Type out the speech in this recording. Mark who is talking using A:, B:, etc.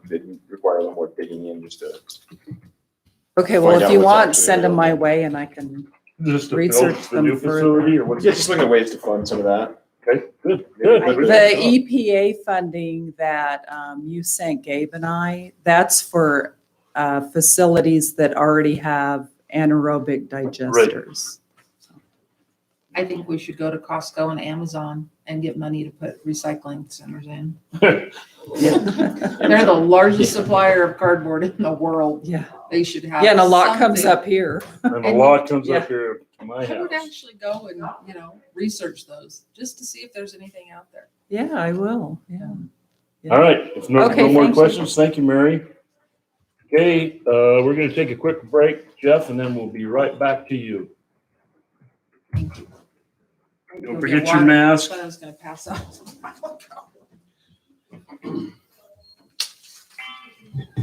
A: did require a little more digging in just to.
B: Okay, well,
A: Find
B: if
A: out
B: you
A: what's
B: want,
A: actually
B: send them my
A: available.
B: way and I can,
C: Just to build
B: Research
C: the new
B: them further.
C: facility or what is
A: Yeah,
C: it?
A: just looking at ways to fund some of that.
C: Okay, good,
A: Maybe
C: good.
A: we
B: the e- EPA funding that um, you sent Gabe and I, that's for uh, facilities that already have anaerobic digesters.
D: I think we should go to Costco and Amazon and get money to put recycling centers in. They're the largest supplier of cardboard in the world.
B: Yeah,
D: They should have.
B: yeah, and a lot comes
D: something.
B: up here.
C: And a lot comes up here to my
D: I would
C: house.
D: actually go and, you know, research those just to see if there's anything out there.
B: Yeah, I will, yeah.
C: All right, if no,
B: Okay,
C: no more
B: thank you.
C: questions, thank you, Mary. Okay, uh, we're gonna take a quick break, Jeff, and then we'll be right back to you.
D: I'm
C: Don't
D: gonna get
C: forget your
D: water.
C: mask.
D: I was gonna pass out.